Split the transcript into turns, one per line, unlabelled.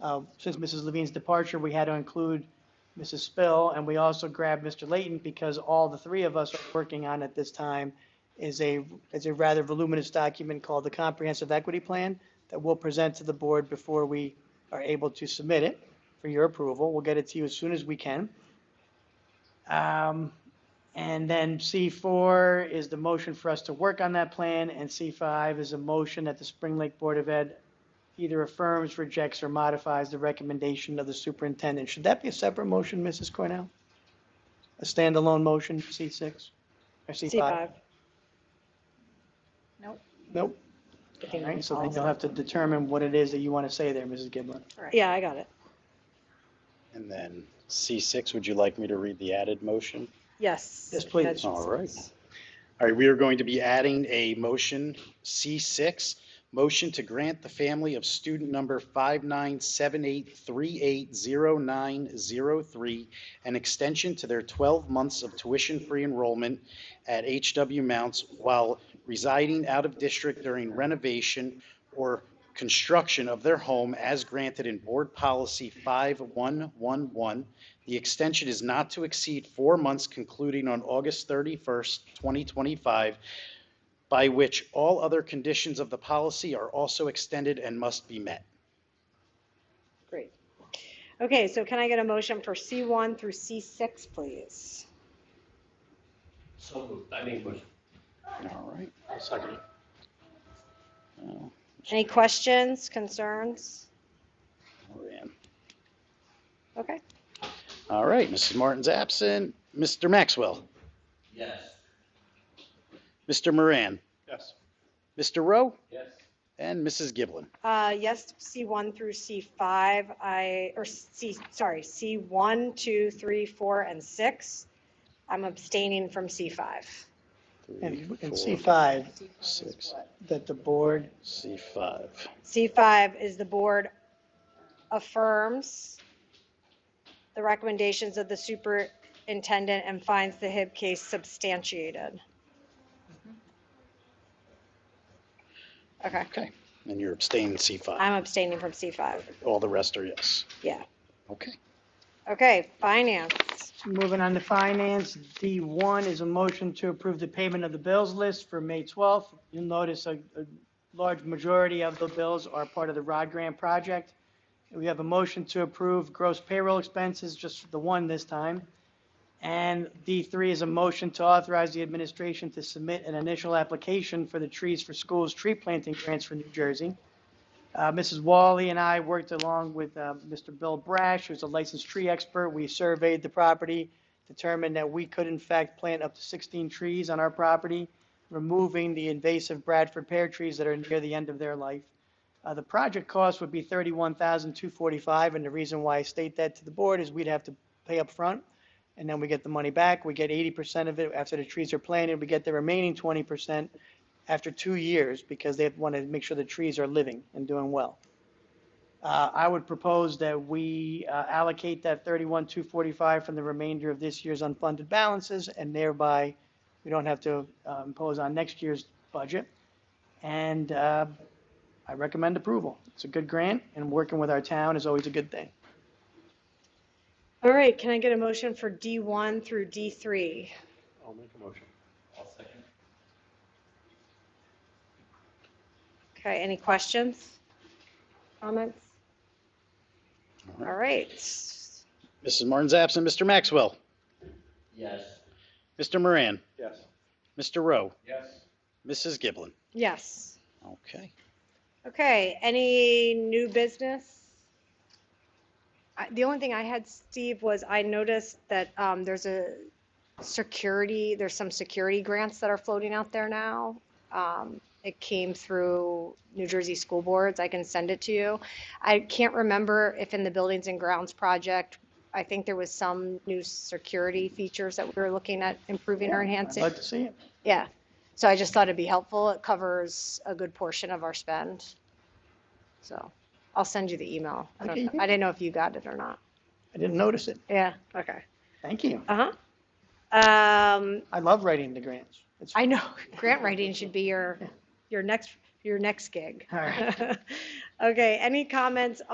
Uh, Since Mrs. Levine's departure, we had to include Mrs. Spill, and we also grabbed Mr. Layton because all the three of us are working on at this time is a, is a rather voluminous document called the Comprehensive Equity Plan that we'll present to the board before we are able to submit it for your approval. We'll get it to you as soon as we can. Um, And then C4 is the motion for us to work on that plan, and C5 is a motion that the Spring Lake Board of Ed either affirms, rejects, or modifies the recommendation of the superintendent. Should that be a separate motion, Mrs. Cornell? A standalone motion, C6 or C5?
C5.
Nope. All right, so then you'll have to determine what it is that you want to say there, Mrs. Giblin.
Yeah, I got it.
And then C6, would you like me to read the added motion?
Yes.
Yes, please.
That's-
All right. All right, we are going to be adding a motion, C6, motion to grant the family of student number 5978380903 an extension to their 12 months of tuition-free enrollment at HW Mounts while residing out of district during renovation or construction of their home as granted in Board Policy 5111, the extension is not to exceed four months concluding on August 31st, 2025, by which all other conditions of the policy are also extended and must be met.
Great. Okay, so can I get a motion for C1 through C6, please?
So moved. I make a motion.
All right.
I'll second it.
Oh,
Any questions, concerns?
man.
Okay.
All right, Mrs. Martin's absent. Mr. Maxwell,
Yes.
Mr. Moran,
Yes.
Mr. Rowe,
Yes.
and Mrs. Giblin.
Uh, yes, C1 through C5, I, or C, sorry, C1, 2, 3, 4, and 6. I'm abstaining from C5.
And and
Three, four,
C5,
Six,
that the board
C5.
C5 is the board affirms the recommendations of the superintendent and finds the HIB case substantiated. Okay,
Okay, and you're abstaining C5.
I'm abstaining from C5,
All the rest are yes.
yeah.
Okay.
Okay, finance,
Moving on to finance, D1 is a motion to approve the payment of the bills list for May 12th. You'll notice a, a large majority of the bills are part of the Rod Grant project. We have a motion to approve gross payroll expenses, just the one this time. And D3 is a motion to authorize the administration to submit an initial application for the Trees for Schools tree planting grants for New Jersey. Uh, Mrs. Wally and I worked along with uh, Mr. Bill Brash, who's a licensed tree expert. We surveyed the property, determined that we could in fact plant up to 16 trees on our property, removing the invasive Bradford pear trees that are near the end of their life. Uh, The project cost would be $31,245, and the reason why I state that to the board is we'd have to pay up front, and then we get the money back. We get 80% of it after the trees are planted. We get the remaining 20% after two years because they want to make sure the trees are living and doing well. Uh, I would propose that we uh, allocate that 31,245 from the remainder of this year's unfunded balances and thereby we don't have to uh, impose on next year's budget. And uh, I recommend approval. It's a good grant and working with our town is always a good thing.
all right, can I get a motion for D1 through D3?
I'll make a motion. I'll second.
Okay, any questions, comments?
All
All right,
Mrs. Martin's absent. Mr. Maxwell,
Yes.
Mr. Moran,
Yes.
Mr. Rowe,
Yes.
Mrs. Giblin.
yes.
Okay.
Okay, any new business? I- The only thing I had, Steve, was I noticed that um, there's a security, there's some security grants that are floating out there now. Um, It came through New Jersey School Boards, I can send it to you. I can't remember if in the Buildings and Grounds project, I think there was some new security features that we were looking at improving or enhancing.
I'd like to see it.
Yeah, so I just thought it'd be helpful. It covers a good portion of our spend. So I'll send you the email. I don't
Okay,
know-
yeah.
I didn't know if you got it or not.
I didn't notice it.
Yeah, okay.
Thank you.
Uh-huh. Um,
I love writing the grants. It's
I know, grant writing should be your, your next, your next gig.
All
Okay, any comments